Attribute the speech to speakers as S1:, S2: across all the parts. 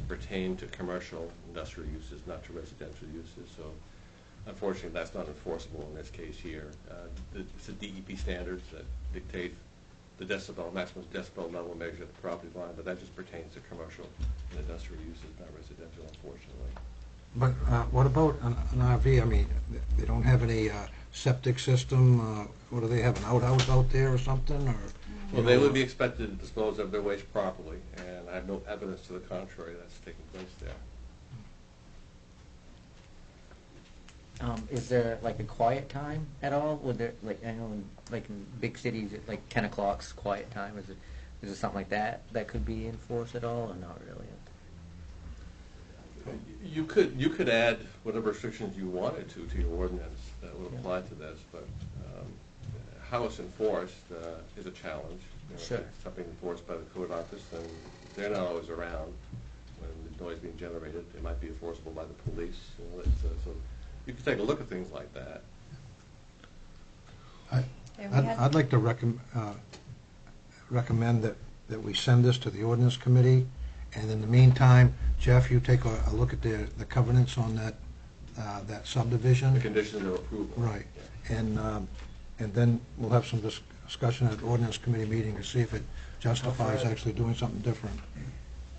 S1: pertain to commercial industrial uses, not to residential uses, so unfortunately, that's not enforceable in this case here. Uh, th- It's the DEP standards that dictate the decibel, maximum decibel level measured at the property line, but that just pertains to commercial and industrial uses, not residential, unfortunately.
S2: But uh, what about an an RV? I mean, th- they don't have any uh, septic system, uh, what do they have, an outhouse out there or something, or?
S1: Well, they would be expected to dispose of their waste properly, and I have no evidence to the contrary that's taking place there.
S3: Um, is there like a quiet time at all? Would there like I know in, like in big cities it, like ten o'clock's quiet time? Is it is it something like that that could be enforced at all or not really?
S1: You could, you could add whatever restrictions you wanted to, to your ordinance that would apply to this, but um, how it's enforced uh, is a challenge. You know, if
S3: Sure.
S1: it's Something enforced by the code office, and they're not always around when the noise being generated. It might be enforceable by the police, you know, it's, uh, so you could take a look at things like that.
S2: I-
S4: Yeah, we
S2: I'd
S4: had-
S2: I'd like to recommend, recommend that, that we send this to the ordinance committee, and in the meantime, Jeff, you take a, a look at the, the covenants on that, uh, that subdivision.
S1: The conditions of approval.
S2: Right,
S1: Yeah.
S2: and, um, and then we'll have some dis- discussion at ordinance committee meeting to see if it justifies
S5: How far-
S2: actually doing something different.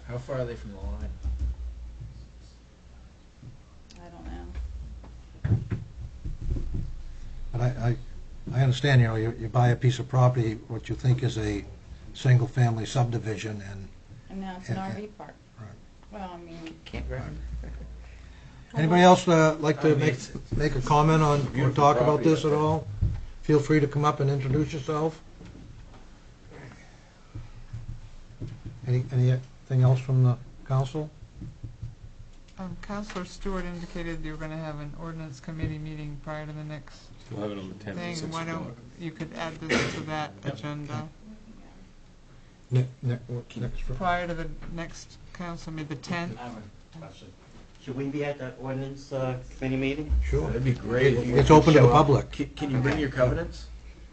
S5: How far are they from the line?
S4: I don't know.
S2: But I, I, I understand, you know, you, you buy a piece of property, what you think is a single-family subdivision, and
S4: And now it's an
S2: Yeah, yeah.
S4: RV park.
S2: Right.
S4: Well, I mean,
S3: Campground.
S2: Anybody else uh, like
S5: I
S2: to
S5: mean,
S2: make,
S5: it's-
S2: make a comment on, or
S1: beautiful
S2: talk about
S1: property,
S2: this
S1: I
S2: at
S1: think.
S2: all? Feel free to come up and introduce yourself. Any, anything else from the council?
S6: Um, Counselor Stewart indicated you were gonna have an ordinance committee meeting prior to the next
S7: We'll have it on the 10th at 6
S6: thing. Why
S7: o'clock.
S6: don't, you could add this to that agenda,
S2: Ne- ne- what- Next, fr-
S6: prior to the next council meeting, the tenth?
S8: Should we be at that ordinance uh, committee meeting?
S2: sure.
S5: That'd be great. if you
S2: It's
S5: could
S2: open to
S5: show
S2: the
S5: up.
S2: public.
S5: Can, can you bring your covenants?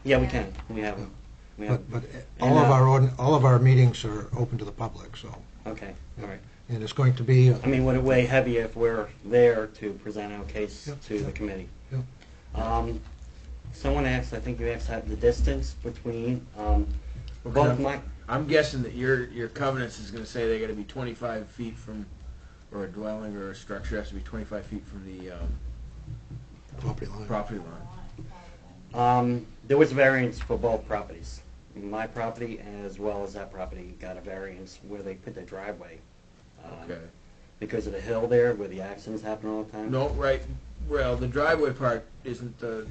S8: Yeah, we can. We have
S5: Oh.
S8: them. We have,
S2: But, but all of our, ordin- all of our meetings are open to the public, so,
S8: okay, all right.
S2: and it's going to be, uh,
S8: I mean, would it weigh heavy if we're there to present our case
S2: Yep,
S8: to the
S2: yep,
S8: committee?
S2: yep.
S8: Um, Someone asked, I think you asked, have the distance between, um,
S5: What
S8: both
S5: kind of-
S8: my,
S5: I'm guessing that your, your covenants is gonna say they gotta be twenty-five feet from, or a dwelling or a structure has to be twenty-five feet from the, um,
S2: property line.
S5: property line.
S8: um, there was variance for both properties. My property as well as that property got a variance where they put the driveway. um,
S5: Okay.
S8: Because of the hill there where the accidents happen all the time.
S5: No, right, well, the driveway part isn't the,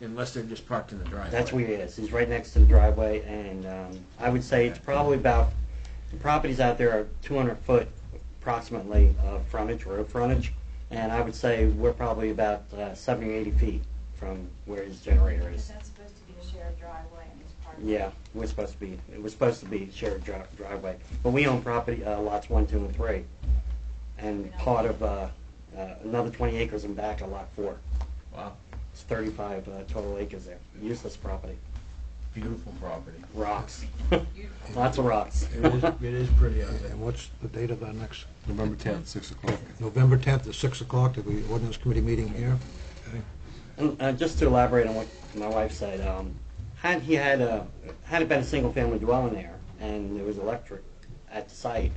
S5: unless they're just parked in the driveway.
S8: That's where he is. He's right next to the driveway, and um, I would say it's probably about, the properties out there are 200 foot approximately of frontage, road frontage, and I would say we're probably about uh, 70 or 80 feet from where his generator
S4: Is
S8: is.
S4: that supposed to be a shared driveway and it's part of?
S8: Yeah, we're supposed to be, it was supposed to be shared dri- driveway, but we own property, uh, lots 1, 2, and 3, and part of uh, uh, another 20 acres in back of lot 4.
S5: Wow,
S8: It's 35 uh, total acres there, useless property,
S5: beautiful property.
S8: rocks. Lots of rocks.
S5: It is, it is pretty out there.
S2: And what's the date of our next,
S7: November 10th, 6 o'clock.
S2: November 10th at 6 o'clock, the ordinance committee meeting here? Okay.
S8: And uh, just to elaborate on what my wife said, um, had he had a had it been a single family dwelling there and there was electric at the site,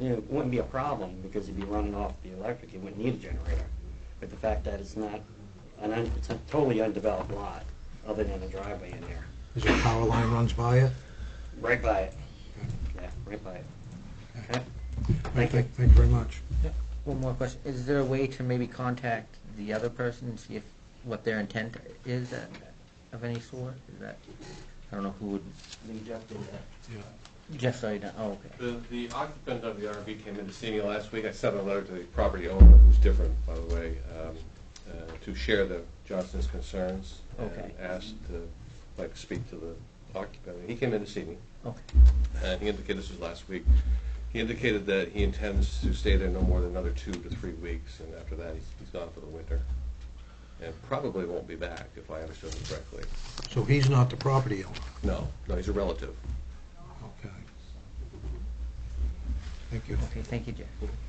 S8: you know, it wouldn't be a problem because he'd be running off the electric. He wouldn't need a generator. But the fact that it's not an un, it's a totally undeveloped lot, other than a driveway in there,
S2: Is there a power line runs by it?
S8: right by it. Yeah, right by it. Okay. Thank you.
S2: Thank you very much.
S3: One more question: Is there a way to maybe contact the other person and see if what their intent is at, of any sort? Is that I don't know who would. Jeff, sorry, no, oh, okay.
S1: The, the occupant of the RV came in to see me last week. I sent a letter to the property owner, who's different, by the way, um, uh, to share the Johnson's concerns.
S3: Okay.
S1: And asked to, like, speak to the occupant. He came in to see me,
S3: Okay.
S1: and he indicated, this was last week, he indicated that he intends to stay there no more than another two to three weeks, and after that, he's, he's gone for the winter. And probably won't be back, if I understood him correctly.
S2: So he's not the property owner,
S1: No, no, he's a relative.
S2: okay. Thank you.
S3: Okay, thank you, Jeff.